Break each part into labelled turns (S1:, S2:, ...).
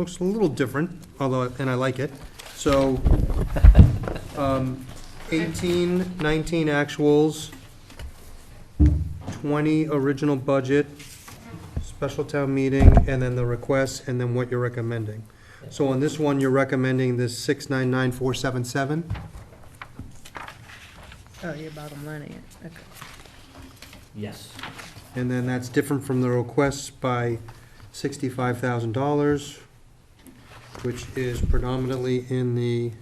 S1: Looks a little different, although, and I like it. So, um, 18, 19 actuals, 20 original budget, special town meeting, and then the requests, and then what you're recommending. So on this one, you're recommending this 699477?
S2: Oh, you're bottom lining it, okay.
S3: Yes.
S1: And then that's different from the requests by sixty-five thousand dollars, which is predominantly in the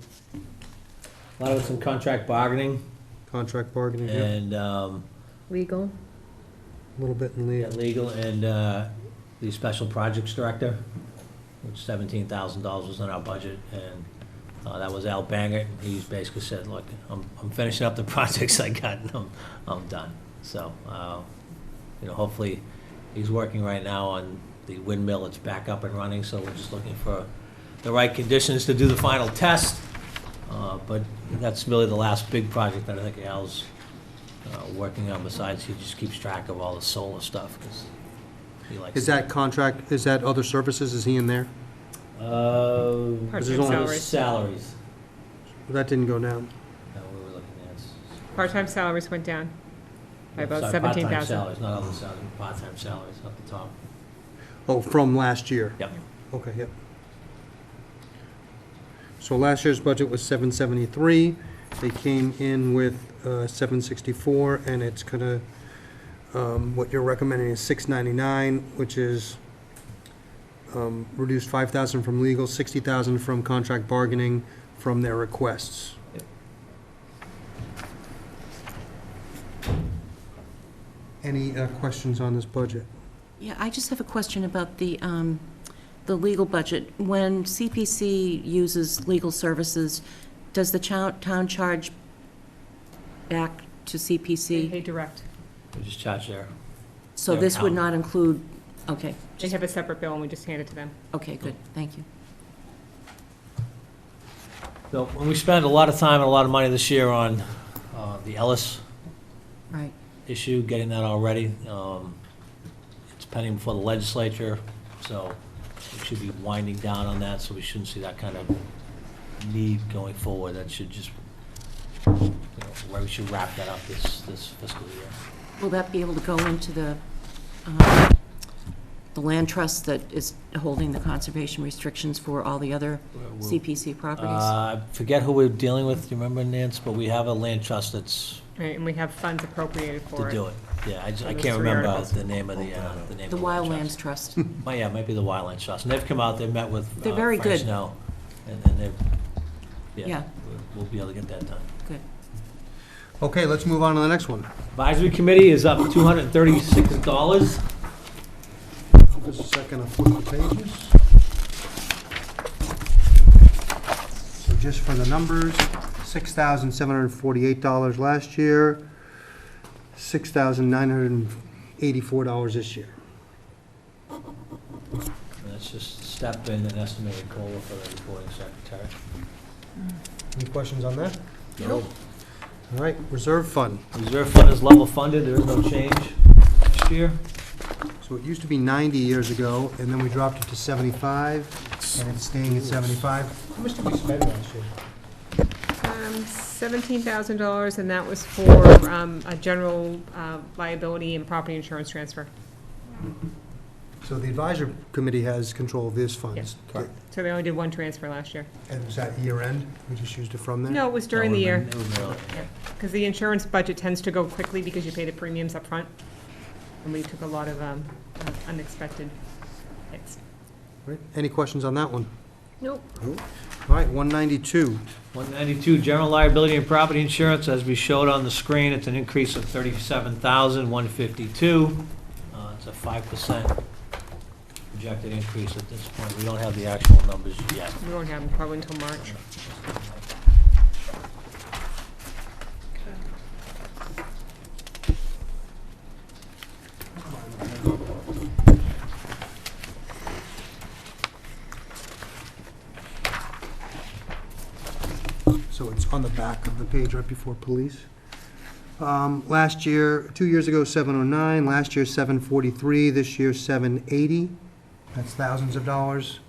S3: A lot of it's in contract bargaining
S1: contract bargaining, yeah,
S3: and, um,
S2: Legal,
S1: a little bit in
S3: yeah,
S1: the,
S3: legal and, uh, the special projects director, which seventeen thousand dollars was in our budget, and, uh, that was Al Banger. He basically said, look, I'm, I'm finishing up the projects I got and I'm, I'm done. So, uh, you know, hopefully, he's working right now on the windmill, it's back up and running, so we're just looking for the right conditions to do the final test. Uh, But that's really the last big project that I think Al's uh, working on, besides he just keeps track of all the solar stuff, because he likes.
S1: is that contract, is that other services, is he in there?
S3: Uh,
S1: Part-time
S3: salaries.
S4: salaries.
S3: Salaries,
S1: That didn't go down.
S3: that we were looking at. It's-
S4: Part-time salaries went down by about
S3: Sorry, Part-time
S4: 17,000.
S3: salaries, not other salaries, part-time salaries up the top.
S1: Oh, from last year?
S3: Yep.
S1: Okay, yep. So last year's budget was seven seventy-three, they came in with, uh, seven sixty-four, and it's gonna, um, what you're recommending is six ninety-nine, which is, um, reduced five thousand from legal, sixty thousand from contract bargaining from their requests.
S3: Yep.
S1: Any, uh, questions on this budget?
S5: Yeah, I just have a question about the, um, the legal budget. When CPC uses legal services, does the chow- town charge back
S4: They
S5: to CPC?
S4: pay direct.
S3: We just charged there.
S5: So
S3: their
S5: this would
S3: town.
S5: not include, okay,
S4: They have a separate bill, and we just hand it to them.
S5: okay, good, thank you.
S3: So, when we spent a lot of time and a lot of money this year on uh, the Ellis
S5: Right,
S3: issue, getting that all ready. Um, It's pending before the legislature, so we should be winding down on that, so we shouldn't see that kind of need going forward. That should just, you know, where we should wrap that up this, this fiscal year.
S5: will that be able to go into the, um, the land trust that is holding the conservation restrictions for all the other
S3: We'll- we'll-
S5: CPC properties?
S3: Uh, I forget who we're dealing with, do you remember, Nance? But we have a land trust that's
S4: Right, And we have funds appropriated
S3: to
S4: for it.
S3: do it. Yeah, I just, I
S4: Those
S3: can't
S4: three
S3: remember
S4: articles.
S3: the name of the, uh, the name of
S5: The
S3: the land trust.
S5: Wildlands Trust.
S3: Oh, yeah, it might be the Wildland Trust. And they've come out, they've met with uh,
S5: They're very
S3: Frank
S5: good.
S3: Snow, and and they've, yeah,
S5: Yeah.
S3: we'll- we'll be able to get that done.
S5: Good.
S1: Okay, let's move on to the next one.
S3: Advisory Committee is up $236.
S1: Just a second, I'll flip the pages. So just for the numbers, six thousand seven hundred and forty-eight dollars last year, six thousand nine hundred and eighty-four dollars this year.
S3: And That's just a step in an estimated COLA for the recording secretary.
S1: Any questions on that? All right, reserve fund.
S3: Reserve fund is level funded, there is no change next year.
S1: So it used to be ninety years ago, and then we dropped it to seventy-five, and it's staying at seventy-five. How much did we spend last year?
S4: Um, $17,000, and that was for um, a general uh, liability and property insurance transfer.
S1: So the advisory committee has control of these funds.
S4: Yes. So they only did one transfer last year.
S1: And was that year end? We just used it from there?
S4: No, it was during the
S3: That
S4: year,
S3: would've been- it would've been early.
S4: because the insurance budget tends to go quickly because you pay the premiums up front, And we took a lot of um, uh, unexpected hits.
S1: Right. Any questions on that one?
S4: Nope.
S1: All right, 192.
S3: 192, general liability and property insurance, as we showed on the screen, it's an increase of 37,152. Uh, It's a 5% projected increase at this point. We don't have the actual numbers yet.
S4: We won't have them probably until March.
S1: So it's on the back of the page right before police. Um, Last year, two years ago, 709, last year, 743, this year, 780. That's thousands of dollars.